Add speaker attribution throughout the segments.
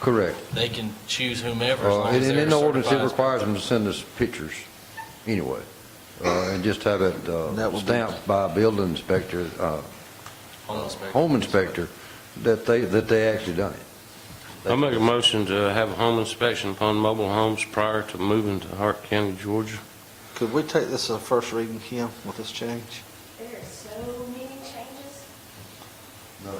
Speaker 1: Correct.
Speaker 2: They can choose whomever as
Speaker 1: Uh,
Speaker 2: long
Speaker 1: And
Speaker 2: as
Speaker 1: and
Speaker 2: they're
Speaker 1: in the ordinance, it
Speaker 2: certified.
Speaker 1: requires them to send us pictures, anyway, Uh, and just have it
Speaker 3: That
Speaker 1: uh,
Speaker 3: would be-
Speaker 1: stamped by a building inspector, uh,
Speaker 2: Home inspector.
Speaker 1: home inspector, that they, that they actually done it.
Speaker 4: I make a motion to have a home inspection upon mobile homes prior to moving to Hart County, Georgia.
Speaker 3: Could we take this as a first reading, Kim, with this change?
Speaker 5: There are so many changes.
Speaker 3: No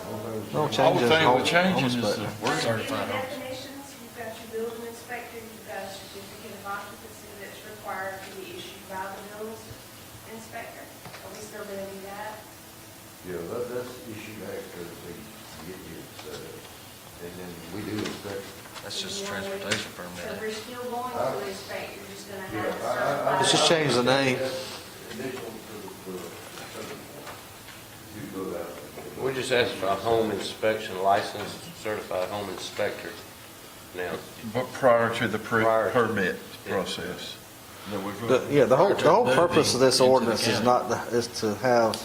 Speaker 6: Whole
Speaker 3: changes.
Speaker 6: thing
Speaker 3: home-
Speaker 6: with changing
Speaker 3: home
Speaker 6: is
Speaker 3: inspector.
Speaker 6: the word.
Speaker 2: Certified
Speaker 5: You've got
Speaker 2: homes.
Speaker 5: definitions, you've got your building inspector, you've got a certificate of occupancy that's required to be issued by the building inspector. Are we still going to do that?
Speaker 1: Yeah, that, that's issue after they get here, so, and then we do inspect.
Speaker 2: That's just a transportation permit.
Speaker 5: So we're still going to inspect, you're just going to have it
Speaker 1: Yeah, I- I- I-
Speaker 5: certified.
Speaker 3: Let's just change the name.
Speaker 4: We just asked for a home inspection, licensed certified home inspector now.
Speaker 6: But prior to the per-
Speaker 4: Prior to-
Speaker 6: permit process.
Speaker 3: The- Yeah, the whole, the whole purpose of this ordinance is not, to- is to have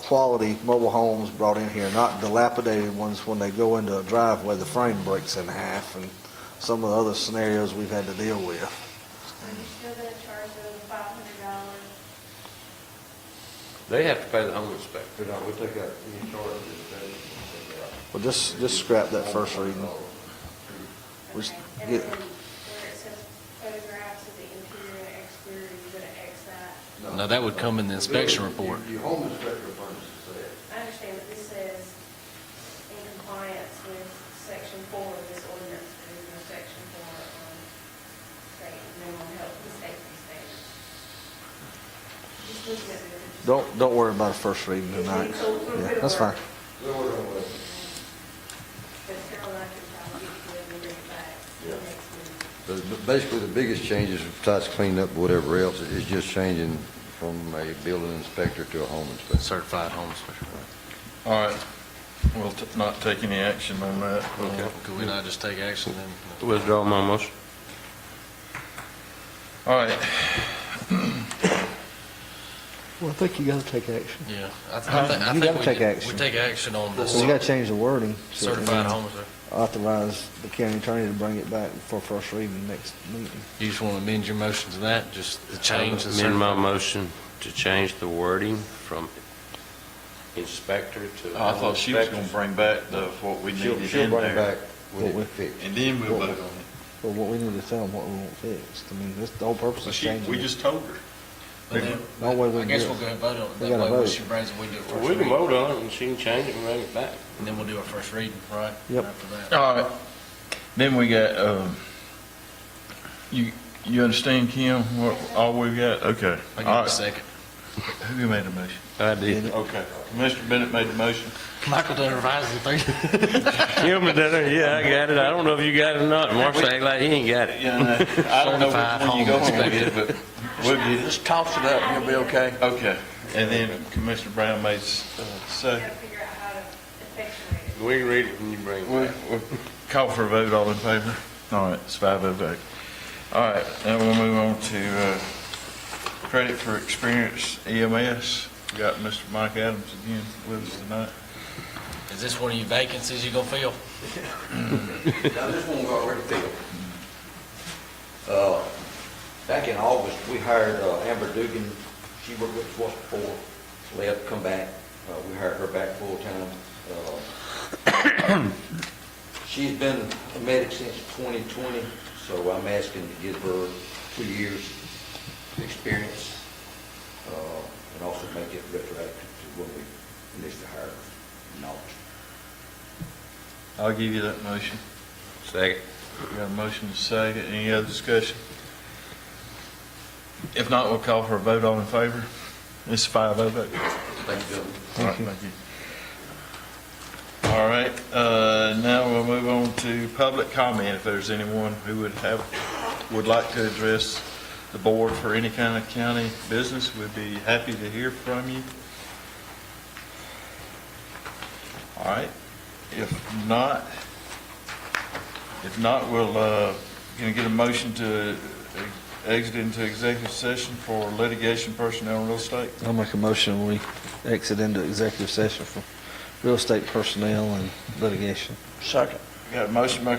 Speaker 3: quality mobile homes brought in here, not dilapidated ones when they go into a driveway, the frame breaks in half, and some of the other scenarios we've had to deal with.
Speaker 5: Are you still going to charge them five hundred dollars?
Speaker 4: They have to pay the home inspector.
Speaker 1: But no, we take out any charge of
Speaker 3: Well, just, just scrap that first reading.
Speaker 1: Oh,
Speaker 3: We s-
Speaker 5: Okay, and
Speaker 3: get-
Speaker 5: then where it says photographs of the interior and exterior, you're going to X that.
Speaker 1: that.
Speaker 2: No, that would come in the inspection report.
Speaker 1: Your home inspector furnishes that.
Speaker 5: I understand, but this says in compliance with section four of this ordinance, there is no section four on state, mental health and safety standards. Just looking at the.
Speaker 3: Don't, don't worry about a first reading tonight. Yeah, that's fine.
Speaker 1: Then we're gonna wait.
Speaker 5: But Caroline can probably get you and bring it back to the
Speaker 1: Yeah.
Speaker 5: next meeting.
Speaker 1: The- the- Basically, the biggest change is besides cleaning up whatever else, is just changing from a building inspector to a home inspector.
Speaker 2: Certified home inspector.
Speaker 6: All right, we'll t- not take any action on that. We'll-
Speaker 2: Could we not just take action then?
Speaker 4: Withdraw my motion.
Speaker 6: All right,
Speaker 3: Well, I think you gotta take action.
Speaker 2: Yeah. I th- I think- I
Speaker 3: Um, You
Speaker 2: think
Speaker 3: gotta
Speaker 2: we
Speaker 3: take
Speaker 2: do-
Speaker 3: action.
Speaker 2: We take action on this
Speaker 3: We gotta change the wording. so it
Speaker 2: certified home inspector.
Speaker 3: Authorize the county attorney to bring it back for first reading next meeting.
Speaker 2: You just want to amend your motion to that, just the change. the
Speaker 4: Amend my
Speaker 2: certified-
Speaker 4: motion to change the wording from inspector to
Speaker 6: Oh, I
Speaker 4: home
Speaker 6: thought she was
Speaker 4: inspector.
Speaker 6: gonna bring back the, what we
Speaker 1: She'll,
Speaker 6: needed
Speaker 1: she'll
Speaker 6: in
Speaker 1: bring it
Speaker 6: there.
Speaker 1: back when it fixed.
Speaker 6: And then we'll vote on it.
Speaker 3: But what we need to tell them what we want fixed. I mean, this, the whole purpose
Speaker 6: So
Speaker 3: of
Speaker 6: she,
Speaker 3: changing.
Speaker 6: we
Speaker 3: it.
Speaker 6: just told her.
Speaker 2: But then-
Speaker 3: No way we
Speaker 2: I
Speaker 3: can
Speaker 2: guess
Speaker 3: do it.
Speaker 2: we'll go ahead and vote on
Speaker 3: We
Speaker 2: it.
Speaker 3: gotta
Speaker 2: That way, when
Speaker 3: vote.
Speaker 2: she brings it, we do it first
Speaker 4: We can
Speaker 2: reading.
Speaker 4: vote on it, and she can change it and bring it back.
Speaker 2: And then we'll do a first reading, right?
Speaker 3: Yep.
Speaker 2: After that.
Speaker 6: All right, then we got, um, you, you understand, Kim, what, all we've got? Okay.
Speaker 2: I
Speaker 6: All
Speaker 2: give it a
Speaker 6: right.
Speaker 2: secgen
Speaker 6: Who made the motion?
Speaker 4: I did.
Speaker 6: Okay, Commissioner Bennett made the motion.
Speaker 2: Michael done revised the thing.
Speaker 4: Gilman done it, yeah, I got it. I don't know if you got it or not. Marshall act like he ain't got it.
Speaker 6: Yeah, no, I don't know
Speaker 2: Certified
Speaker 6: which one you go
Speaker 2: home
Speaker 6: home with, but we'll get it.
Speaker 2: Just toss it up, you'll be okay.
Speaker 6: Okay, and then Commissioner Brown made, s- uh,
Speaker 5: You
Speaker 6: second.
Speaker 5: gotta figure out how to effectuate it.
Speaker 4: We can read it when you bring it
Speaker 6: We-
Speaker 4: back.
Speaker 6: we- Call for a vote, all in favor? All right, it's five oh vote. All right, now we'll move on to uh, credit for experience EMS. We Got Mr. Mike Adams again with us tonight.
Speaker 2: Is this one of your vacancies you gonna fill?
Speaker 7: Now, this one got already filled. Uh, Back in August, we hired uh, Amber Dugan, she worked with us once before, left, come back, Uh, we hired her back full-time. Uh, She's been a medic since 2020, so I'm asking to give her two years' experience, uh, and also make it retroactive to when we initially hired her in August.
Speaker 6: I'll give you that motion.
Speaker 4: Second.
Speaker 6: We got a motion to second, any other discussion? If not, we'll call for a vote, all in favor? It's five oh vote.
Speaker 7: Thank you, gentlemen.
Speaker 6: All right, Thank you. All right, uh, now we'll move on to public comment. If there's anyone who would have, would like to address the board for any kind of county business, we'd be happy to hear from you. All right, if not, if not, we'll, uh, gonna get a motion to exit into executive session for litigation, personnel, and real estate?
Speaker 3: I'll make a motion, we exit into executive session for real estate personnel and litigation.
Speaker 6: Second. Got a motion by